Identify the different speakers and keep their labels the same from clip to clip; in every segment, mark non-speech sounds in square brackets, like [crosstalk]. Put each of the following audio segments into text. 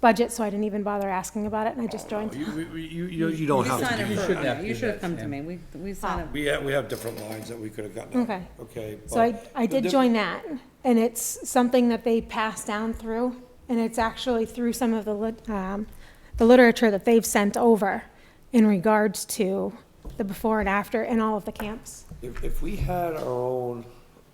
Speaker 1: budget, so I didn't even bother asking about it, and I
Speaker 2: Oh,
Speaker 1: just joined.
Speaker 3: You, we- we- you, you you don't
Speaker 4: You
Speaker 3: have
Speaker 4: sign
Speaker 3: to
Speaker 4: up
Speaker 3: do
Speaker 4: for
Speaker 3: that.
Speaker 4: it.
Speaker 2: shouldn't have to
Speaker 4: You
Speaker 2: do
Speaker 4: should
Speaker 2: that,
Speaker 4: have come
Speaker 2: yeah.
Speaker 4: to me. We, we sign up.
Speaker 2: We have, we have different lines that we could have gotten. out,
Speaker 1: Okay.
Speaker 2: Okay.
Speaker 1: So I,
Speaker 2: but-
Speaker 1: I did join that, and it's something that they pass down through, and it's actually through some of the lit, um, the literature that they've sent over in regards to the before and after in all of the camps.
Speaker 2: If, if we had our own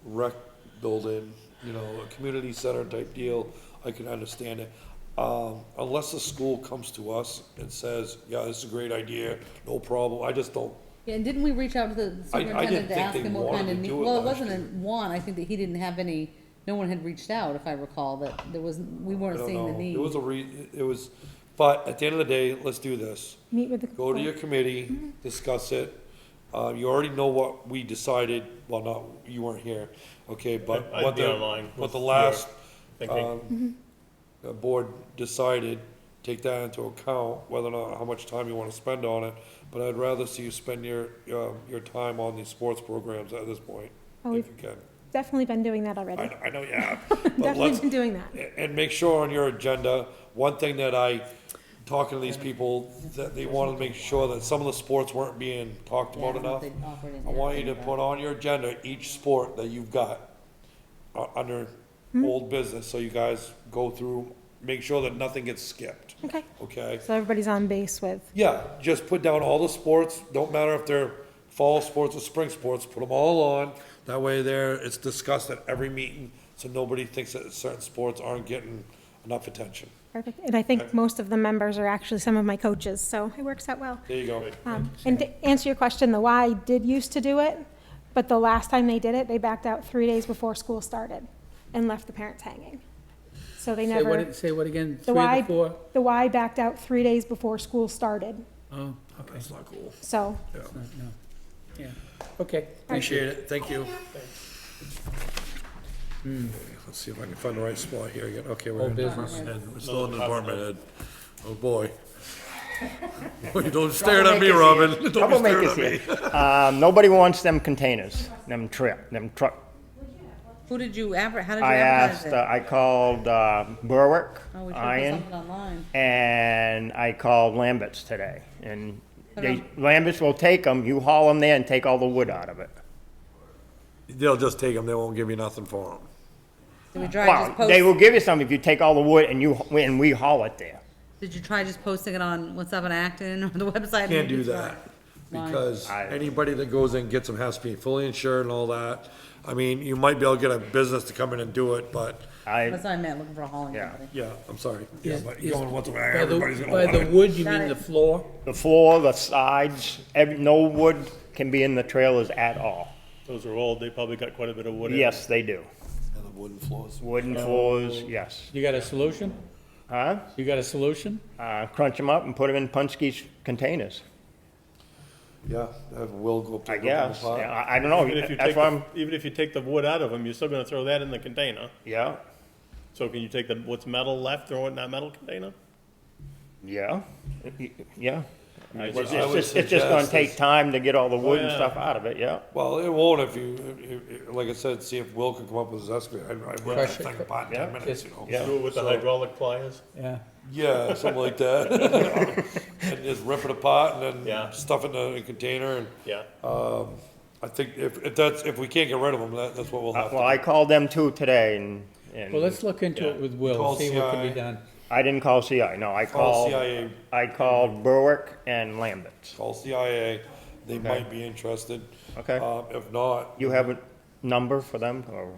Speaker 2: rec building, you know, a community center type deal, I could understand it. Um, unless the school comes to us and says, yeah, this is a great idea, no problem, I just don't,
Speaker 4: Yeah, and didn't we reach out to the
Speaker 2: I didn't
Speaker 4: superintendent to
Speaker 2: think
Speaker 4: ask
Speaker 2: they
Speaker 4: him what kind
Speaker 2: wanted
Speaker 4: of
Speaker 2: to
Speaker 4: need?
Speaker 2: do it
Speaker 4: Well, it
Speaker 2: last
Speaker 4: wasn't
Speaker 2: year.
Speaker 4: a one, I think that he didn't have any, no one had reached out, if I recall, that there was, we
Speaker 2: I
Speaker 4: weren't
Speaker 2: don't
Speaker 4: seeing the
Speaker 2: know.
Speaker 4: need.
Speaker 2: It was a re, it was, but at the end of the day, let's do this.
Speaker 1: Meet with the.
Speaker 2: Go to your committee, discuss it. Uh, you already know what we decided, well, not, you weren't here, okay, but
Speaker 5: I'd
Speaker 2: what
Speaker 5: be
Speaker 2: the,
Speaker 5: online
Speaker 2: what the
Speaker 5: with
Speaker 2: last,
Speaker 5: your thinking.
Speaker 1: Mm-hmm.
Speaker 2: um, the board decided, take that into account, whether or not, how much time you wanna spend on it. But I'd rather see you spend your, um, your time on these sports programs at this point,
Speaker 1: Oh, we've-
Speaker 2: if you can.
Speaker 1: Definitely been doing that already.
Speaker 2: I, I know, yeah.
Speaker 1: [laughs]
Speaker 2: but
Speaker 1: Definitely
Speaker 2: let's.
Speaker 1: been doing that.
Speaker 2: A- And make sure on your agenda, one thing that I, talking to these people, that they wanted to make sure that some of the sports weren't being talked
Speaker 4: Yeah, I
Speaker 2: about
Speaker 4: don't know
Speaker 2: enough.
Speaker 4: if they'd offer it in
Speaker 2: I want you to
Speaker 4: there.
Speaker 2: put on your agenda each sport that you've got, uh, under old business, so you guys go through, make sure that nothing gets skipped,
Speaker 1: Okay,
Speaker 2: okay?
Speaker 1: so everybody's on base with,
Speaker 2: Yeah, just put down all the sports, don't matter if they're fall sports or spring sports, put them all on. That way there, it's discussed at every meeting, so nobody thinks that certain sports aren't getting enough attention.
Speaker 1: perfect, and I think most of the members are actually some of my coaches, so it works out well.
Speaker 2: There you go.
Speaker 1: Um, And to answer your question, the Y did used to do it, but the last time they did it, they backed out three days before school started and left the parents hanging. So they
Speaker 6: Say
Speaker 1: never,
Speaker 6: what, say what again,
Speaker 1: the
Speaker 6: three
Speaker 1: Y,
Speaker 6: to four?
Speaker 1: the Y backed out three days before school started,
Speaker 6: Oh, okay,
Speaker 2: That's not cool.
Speaker 1: so.
Speaker 6: no, no. yeah, okay.
Speaker 2: Appreciate it, thank you. Hmm, Let's see if I can find the right spot here again. Okay, we're
Speaker 6: Old
Speaker 2: in
Speaker 6: business.
Speaker 2: And we're still in the department head. Oh, boy. [laughs] Boy, Don't stare at me, Robin. [laughs] Don't be staring at
Speaker 7: Troublemakers
Speaker 2: me.
Speaker 7: here. [laughs] Um, nobody wants them containers, them trip, them truck.
Speaker 4: Who did you adver, how did you
Speaker 7: I
Speaker 4: advertise
Speaker 7: asked,
Speaker 4: it?
Speaker 7: uh, I called, uh, Berwick,
Speaker 4: Oh, we should have put
Speaker 7: Iron,
Speaker 4: something online.
Speaker 7: and I called Lambert's today. And they,
Speaker 4: Hello.
Speaker 7: Lambert's will take them, you haul them there and take all the wood out of it.
Speaker 2: [laughs] They'll just take them, they won't give you nothing for them.
Speaker 4: Did we try just
Speaker 7: Uh, Well, they will
Speaker 4: post,
Speaker 7: give you some if you take all the wood and you, and we haul it there.
Speaker 4: did you try just posting it on What's Up in Acton or the [laughs] website?
Speaker 2: Can't do that,
Speaker 4: Why?
Speaker 2: because
Speaker 7: I-
Speaker 2: anybody that goes in gets them has to be fully insured and all that. I mean, you might be able to get a business to come in and do it, but,
Speaker 7: I,
Speaker 4: That's what I meant, looking for a hauling
Speaker 7: Yeah.
Speaker 4: company.
Speaker 2: yeah, I'm sorry. Yeah,
Speaker 6: Is-
Speaker 2: but
Speaker 6: is-
Speaker 2: you don't want to,
Speaker 6: By the-
Speaker 2: everybody's gonna
Speaker 6: By
Speaker 2: want
Speaker 6: the
Speaker 2: it.
Speaker 6: wood, you
Speaker 4: Got
Speaker 6: mean the
Speaker 4: it.
Speaker 6: floor?
Speaker 7: the floor, the sides, ev no wood can be in the trailers at all.
Speaker 5: Those are old, they probably got quite a bit of wood in it.
Speaker 7: Yes, they do.
Speaker 2: And the wooden floors.
Speaker 7: Wooden floors, yes.
Speaker 6: You got a solution?
Speaker 7: Huh?
Speaker 6: You got a solution?
Speaker 7: Uh, crunch them up and put them in Punskey's containers.
Speaker 2: Yeah, have Will go up
Speaker 7: I
Speaker 2: there. and open the
Speaker 7: guess.
Speaker 2: pot.
Speaker 7: Yeah, I, I don't know.
Speaker 5: Even if you
Speaker 7: That's
Speaker 5: take,
Speaker 7: why
Speaker 5: the-
Speaker 7: I'm,
Speaker 5: even if you take the wood out of them, you're still gonna throw that in the container.
Speaker 7: yeah,
Speaker 5: So can you take the, what's metal left, throw it in that metal container?
Speaker 7: yeah, yeah.
Speaker 5: I
Speaker 7: It's
Speaker 5: just-
Speaker 2: I would
Speaker 7: just, it's just gonna
Speaker 2: suggest
Speaker 7: take time to get all the wood and
Speaker 5: yeah.
Speaker 7: stuff out of it, yeah.
Speaker 2: Well, it won't if you, if- if- like I said, see if Will can come up with his excavator. I- I worked that
Speaker 6: Crush it.
Speaker 2: thing about
Speaker 7: Yeah.
Speaker 2: ten minutes, you know?
Speaker 7: Yeah.
Speaker 5: Do it with the hydraulic pliers?
Speaker 6: Yeah.
Speaker 2: Yeah, something like [laughs] that. And just rip it apart and
Speaker 5: Yeah.
Speaker 2: then stuff it in a container and,
Speaker 5: Yeah.
Speaker 2: um, I think if, if that's, if we can't get rid of them, that, that's what we'll have
Speaker 7: Uh, Well,
Speaker 2: to.
Speaker 7: I called them too today and,
Speaker 6: Well,
Speaker 7: and
Speaker 6: let's look into it with Will,
Speaker 2: Call
Speaker 6: see what can be
Speaker 2: CI.
Speaker 6: done.
Speaker 7: I didn't call CI, no, I
Speaker 2: Call
Speaker 7: called,
Speaker 2: CIA,
Speaker 7: I called Berwick and Lambert.
Speaker 2: call CIA. They might be interested.
Speaker 7: Okay.
Speaker 2: Um, if not.
Speaker 7: You have a number for them or,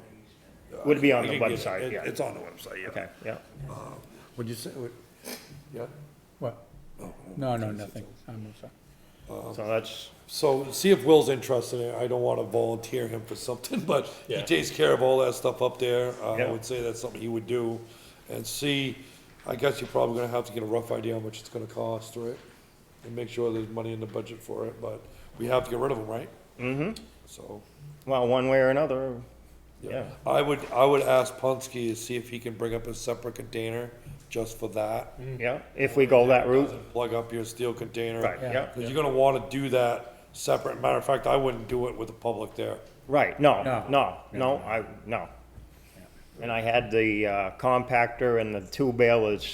Speaker 7: would it be on
Speaker 2: I
Speaker 7: the
Speaker 2: can get it.
Speaker 7: website,
Speaker 2: It-
Speaker 7: yeah?
Speaker 2: It's on the website, yeah.
Speaker 7: Okay, yeah.
Speaker 2: Would you say, would, yeah?
Speaker 6: What? No, no, nothing. I'm sorry.
Speaker 7: So that's,
Speaker 2: So see if Will's interested in it. I don't want to volunteer him for something, [laughs] but he
Speaker 5: Yeah.
Speaker 2: takes care of all that stuff up there. Uh, I
Speaker 7: Yeah.
Speaker 2: would say that's something he would do. And see, I guess you're probably gonna have to get a rough idea how much it's gonna cost, right? And make sure there's money in the budget for it, but we have to get rid of them, right? Mm-hmm. So,
Speaker 7: well, one way or another,
Speaker 2: yeah.
Speaker 7: yeah.
Speaker 2: I would, I would ask Punske to see if he can bring up a separate container just for that.
Speaker 7: Yeah, if we go that route,
Speaker 2: Plug up your steel container.
Speaker 7: Right, yeah.
Speaker 2: Because you're gonna want to do that separate. Matter of fact, I wouldn't do it with the public there.
Speaker 7: right, no,
Speaker 6: No.
Speaker 7: no, no, I, no. And I had the uh, compactor and the two balers